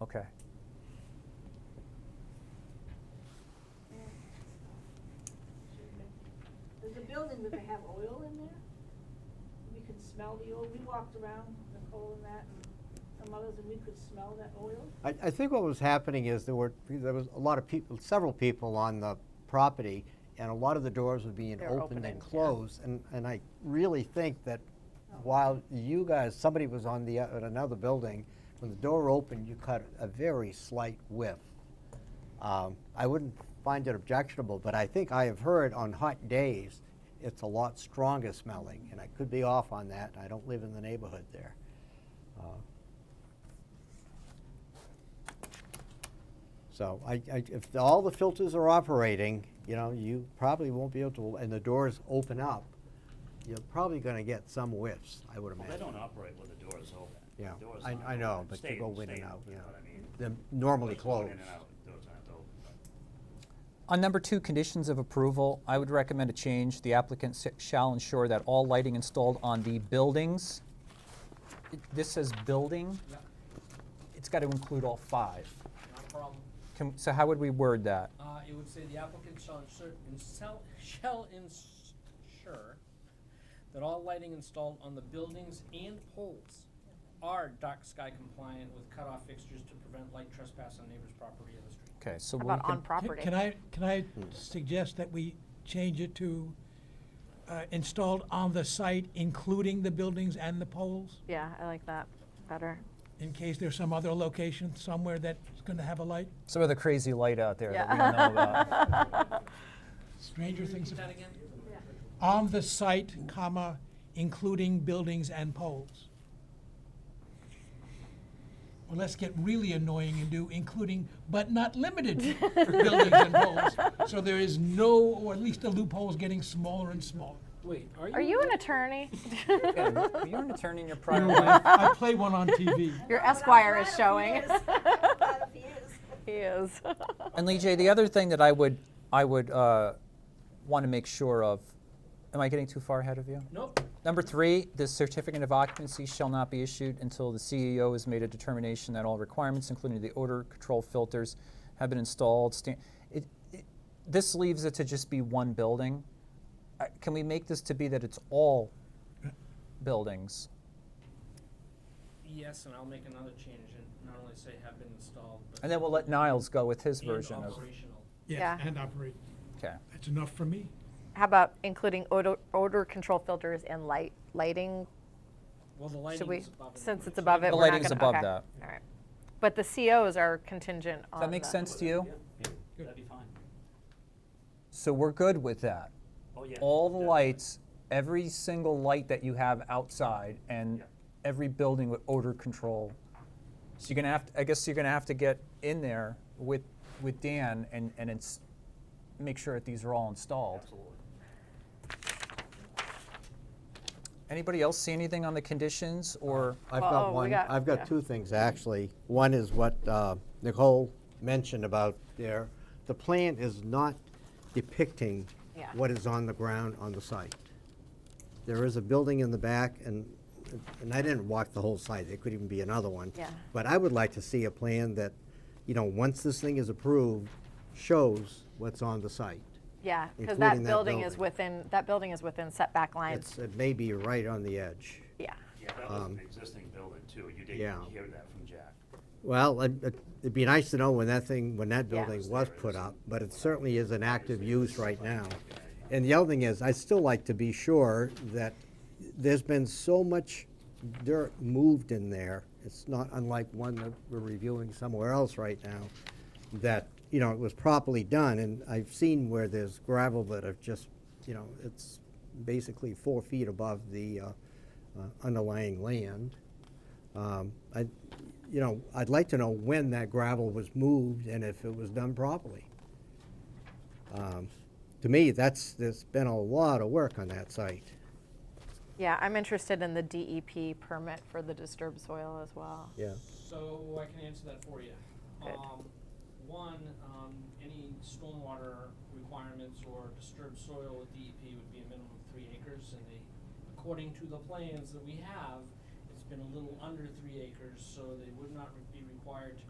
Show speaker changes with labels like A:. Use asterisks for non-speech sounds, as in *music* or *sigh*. A: Okay.
B: There's a building that they have oil in there. We could smell the oil. We walked around, Nicole and that, and some others, and we could smell that oil.
C: I, I think what was happening is there were, there was a lot of people, several people on the property, and a lot of the doors were being
D: They were
C: opened
D: opening,
C: and
D: yeah.
C: closed. And, and I really think that while you guys, somebody was on the, at another building, when the door opened, you caught a very slight whiff. Um, I wouldn't find it objectionable, but I think I have heard on hot days, it's a lot stronger smelling, and I could be off on that. I don't live in the neighborhood there. Uh, So I, I, if all the filters are operating, you know, you probably won't be able to, and the doors open up, you're probably gonna get some whiffs, I would
E: Well,
C: imagine.
E: they don't operate when the door is open.
C: Yeah,
E: The door's
C: I-
E: not
C: I know,
E: open.
C: but they
E: Stay-
C: go in and
E: stay-
C: out,
E: You know
C: yeah.
E: what I mean?
C: They're normally
E: Doors go in and
C: closed.
E: out, doors aren't open, but-
A: On number two, conditions of approval, I would recommend a change. The applicant s- shall ensure that all lighting installed on the buildings, it- this says building,
F: Yep,
A: it's got to include all five.
F: not a problem.
A: Can- So how would we word that?
F: Uh, it would say the applicant shall insert, insel- shall ensure that all lighting installed on the buildings and poles are dark sky compliant with cutoff fixtures to prevent light trespass on neighbor's property in the street.
A: Okay, so
D: How
A: we
D: about on
A: can,
G: Can-
D: property?
G: Can I, can I suggest that we change it to uh, installed on the site, including the buildings and the poles?
D: Yeah, I like that better.
G: In case there's some other location somewhere that's gonna have a light?
A: some of the crazy light out there that we
D: Yeah.
A: don't know about.
D: *laughs*
G: Stranger things.
F: Repeat
G: have-
F: that again?
G: On the site, comma, including buildings and poles. Well, let's get really annoying and do including, but not limited to buildings and poles. So there is no, or at least the loophole's getting smaller and smaller.
F: Wait, are you?
D: Are you an attorney?
A: Yeah, You're an attorney in your
G: You
A: prior
G: know,
A: life.
G: I I play one on TV.
D: Your
B: But I'm
D: Esquire
B: glad
D: is
B: if he *laughs*
D: showing.
B: is. I'm glad if he is.
D: *laughs* He is.
A: *laughs* And Lee J, the other thing that I would, I would uh, want to make sure of, am I getting too far ahead of you?
F: Nope,
A: Number three, the certificate of occupancy shall not be issued until the CEO has made a determination that all requirements, including the odor control filters, have been installed. Sta- it, it, this leaves it to just be one building. Uh, can we make this to be that it's all buildings?
F: yes, and I'll make another change and not only say have been installed, but.
A: And then we'll let Niles go with his
F: and
A: version of.
F: operational.
G: Yes,
D: Yeah.
G: and operate.
A: Okay.
G: That's enough for me.
D: How about including odor, odor control filters and light, lighting?
F: Well, the
D: Should
F: lighting
D: we,
F: is above. and
D: since
F: below,
D: it's
F: so
D: above it,
A: The
D: we're not
A: lighting's
D: gonna,
A: above
D: okay,
A: that.
D: all right. But the COs are contingent on
A: Does that make
D: the-
A: sense to you?
E: Yeah, yeah, that'd be fine.
A: So we're good with that.
E: Oh, yeah.
A: all the
E: definitely.
A: lights, every single light that you have outside and
E: Yeah.
A: every building with odor control. So you're gonna have, to, I guess you're gonna have to get in there with, with Dan and, and it's, make sure that these are all installed.
E: Absolutely.
A: Anybody else see anything on the conditions
E: Uh,
A: or,
C: I've
D: Well, oh,
C: got
D: we
C: one,
D: got-
C: I've
D: yeah.
C: got two things, actually. One is what uh, Nicole mentioned about there, the plan is not depicting
D: Yeah.
C: what is on the ground on the site. There is a building in the back, and, and I didn't walk the whole site, there could even be another one.
D: Yeah.
C: But I would like to see a plan that, you know, once this thing is approved, shows what's on the site.
D: Yeah, because
C: Including
D: that
C: that
D: building is
C: building.
D: within, that building is within setback
C: It's,
D: lines.
C: it may be right on the edge.
D: Yeah.
E: Yeah, that was an existing building too. You
C: Um, yeah.
E: didn't hear that from Jack.
C: Well, it- it- it'd be nice to know when that thing, when that
D: Yeah.
C: building was put up, but it certainly is an active use right now. And the other thing is, I'd still like to be sure that there's been so much dirt moved in there, it's not unlike one that we're reviewing somewhere else right now, that, you know, it was properly done, and I've seen where there's gravel that have just, you know, it's basically four feet above the uh, uh, underlying land. Um, I, you know, I'd like to know when that gravel was moved and if it was done properly. Um, To me, that's, there's been a lot of work on that site.
D: Yeah, I'm interested in the DEP permit for the disturbed soil as well.
C: Yeah.
F: So I can answer that for you.
D: Good.
F: Um, one, um, any stormwater requirements or disturbed soil with DEP would be a minimum of three acres, and they, according to the plans that we have, it's been a little under three acres, so they would not be required to